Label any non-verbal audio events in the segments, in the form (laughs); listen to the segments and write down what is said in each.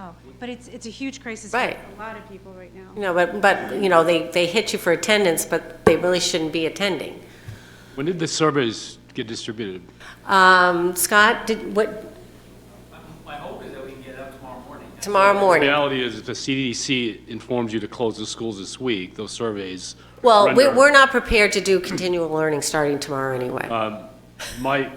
Oh, but it's, it's a huge crisis for Right. a lot of people right now. You know, but, but, you know, they, they hit you for attendance, but they really shouldn't be attending. When did the surveys get distributed? Um, Scott, did, what, My hope is that we can get it up tomorrow morning. tomorrow The morning? reality is, if the CDC informs you to close the schools this week, those surveys. Well, we, render- we're not prepared to do continual learning starting tomorrow anyway. Uh, My,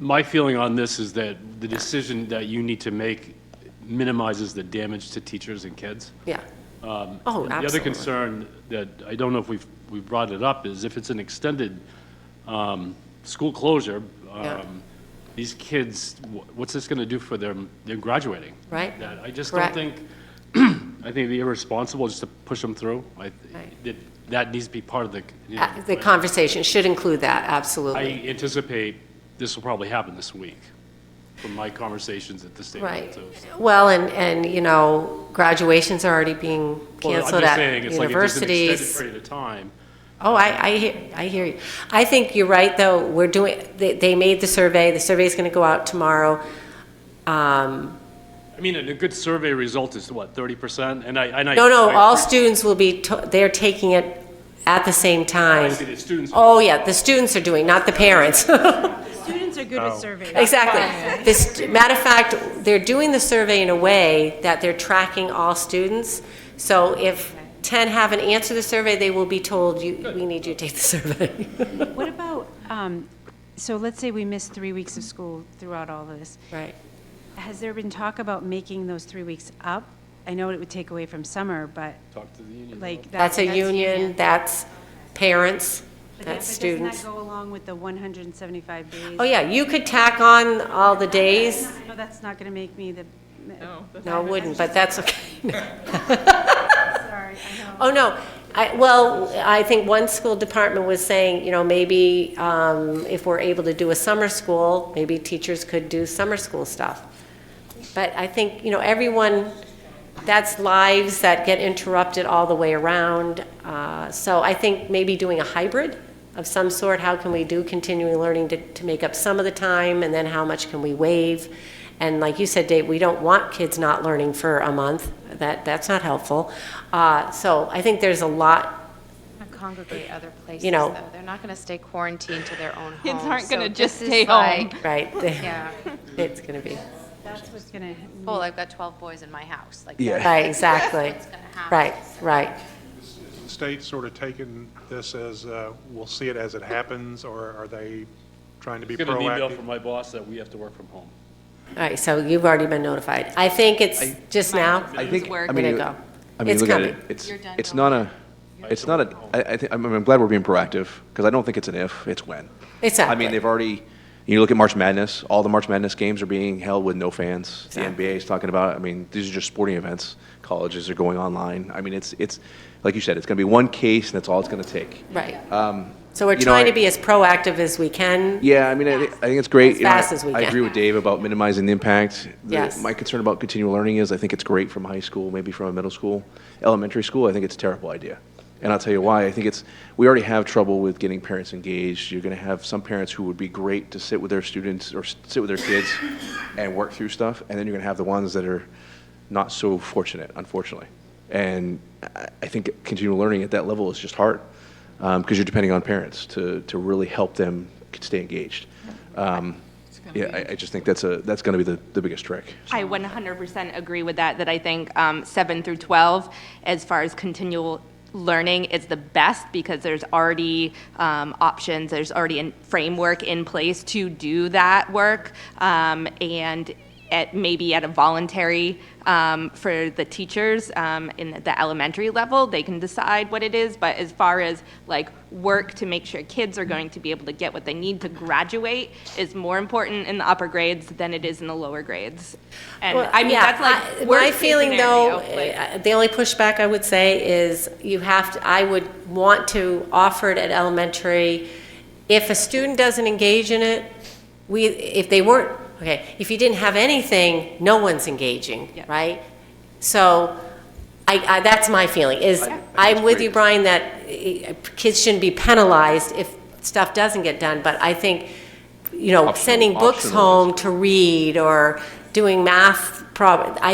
my feeling on this is that the decision that you need to make minimizes the damage to teachers and kids. Yeah. Oh, um, The other absolutely. concern that, I don't know if we've, we've brought it up, is if it's an extended um, school closure, Yeah. um, these kids, wh- what's this going to do for them, they're graduating? Right. That, I just Correct. don't think, (clears throat) I think it'd be irresponsible just to push them through. I- Right. That, that needs to be part of the, you know, Uh, The conversation should include that, I absolutely. anticipate this will probably happen this week, from my conversations at the state level, Right. too. Well, and, and, you know, graduations are already being Well, I'm canceled just at saying, it's like if there's an extended universities. Period of time. Oh, I, I, hear- I hear you. I think you're right, though, we're doing, they, they made the survey, the survey's gonna go out tomorrow. Um, I mean, and a good survey result is what, 30%? And I, and I. No, no, I all appreciate- students will be, to- they're taking it at the same I time. see the students. Oh, yeah, the students are doing, not the parents. (laughs) Students are good Oh. at surveys. Exactly. This, matter of fact, they're doing the survey in a way that they're tracking all students. So if 10 haven't answered the survey, they will be told, you, we need you to take the (laughs) survey. What about, um, so let's say we missed three weeks of school throughout all of this. Right. Has there been talk about making those three weeks up? I know it would take away from summer, but Talk to the union. like. that- That's a union, that's parents, But that- that's but doesn't that students. go along with the 175 days? Oh, yeah, you could tack on all the days. No, that's not going to make me the. No. No, it wouldn't, but that's okay. Sorry, I know. Oh, no. I, well, I think one school department was saying, you know, maybe um, if we're able to do a summer school, maybe teachers could do summer school stuff. But I think, you know, everyone, that's lives that get interrupted all the way around. Uh, So I think maybe doing a hybrid of some sort, how can we do continuing learning to, to make up some of the time? And then how much can we waive? And like you said, Dave, we don't want kids not learning for a month. That, that's not helpful. Uh, So I think there's a lot, Gonna Congregate other places, You know. though. They're not going to stay quarantined to their own home. (laughs) Kids aren't gonna so just this is stay home. like- right? (laughs) (laughs) Yeah, It's going to be, That's what's going to. well, I've got 12 boys in my house, like. Yeah. right, exactly. That's what's gonna happen. Right, right. the state sort of taken this as, uh, we'll see it as it happens, or are they trying to be Get an email proactive? from my boss that we have to work from home. All right, so you've already been notified. I think it's just now. I think, I Way mean, to you- go. I mean, It's you look at coming. it, it's, You're done, it's Bill. not a, it's not a, I, I think, I'm, I'm glad we're being proactive, because I don't think it's an if, it's when. I Exactly. mean, they've already, you look at March Madness, all the March Madness games are being held with no fans. The Exactly. NBA is talking about, it. I mean, these are just sporting events. Colleges are going online. I mean, it's, it's, like you said, it's gonna be one case, and that's all it's gonna take. Right. Um, So we're you know, trying to I- be as proactive as we can. Yeah, I mean, I, thi- I think it's great. As You know, I- fast as we I agree can. with Dave about minimizing the impact. The- Yes. My concern about continual learning is I think it's great from high school, maybe from a middle school, elementary school. I think it's a terrible idea. And I'll tell you why. I think it's, we already have trouble with getting parents engaged. You're going to have some parents who would be great to sit with their students or s- sit with their kids and work through stuff. And then you're going to have the ones that are not so fortunate, unfortunately. And I I think continual learning at that level is just hard because you're depending on parents to, to really help them stay engaged. Um, yeah, I, I just think that's a that's going to be the, the biggest trick. I 100% agree with that, that I think um, 7 through 12, as far as continual learning, is the best because there's already um, options, there's already a framework in place to do that work. um, And at, maybe at a voluntary, um, for the teachers um, in the elementary level, they can decide what it is. But as far as like work to make sure kids are going to be able to get what they need to graduate is more important in the upper grades than it is in the lower grades. And Well, I mean, yeah, that's I- like worst My feeling, case though, scenario, like- uh, the only pushback I would say is you have to, I would want to offer it at elementary. If a student doesn't engage in it, we, if they weren't, okay, if you didn't have anything, no one's engaging, Yeah. right? So I, I, that's my feeling, is I'm with you, Brian, that eh, kids shouldn't be penalized if stuff doesn't get done, but I think, you know, Optional- sending books optional is- home to read or doing math prob, I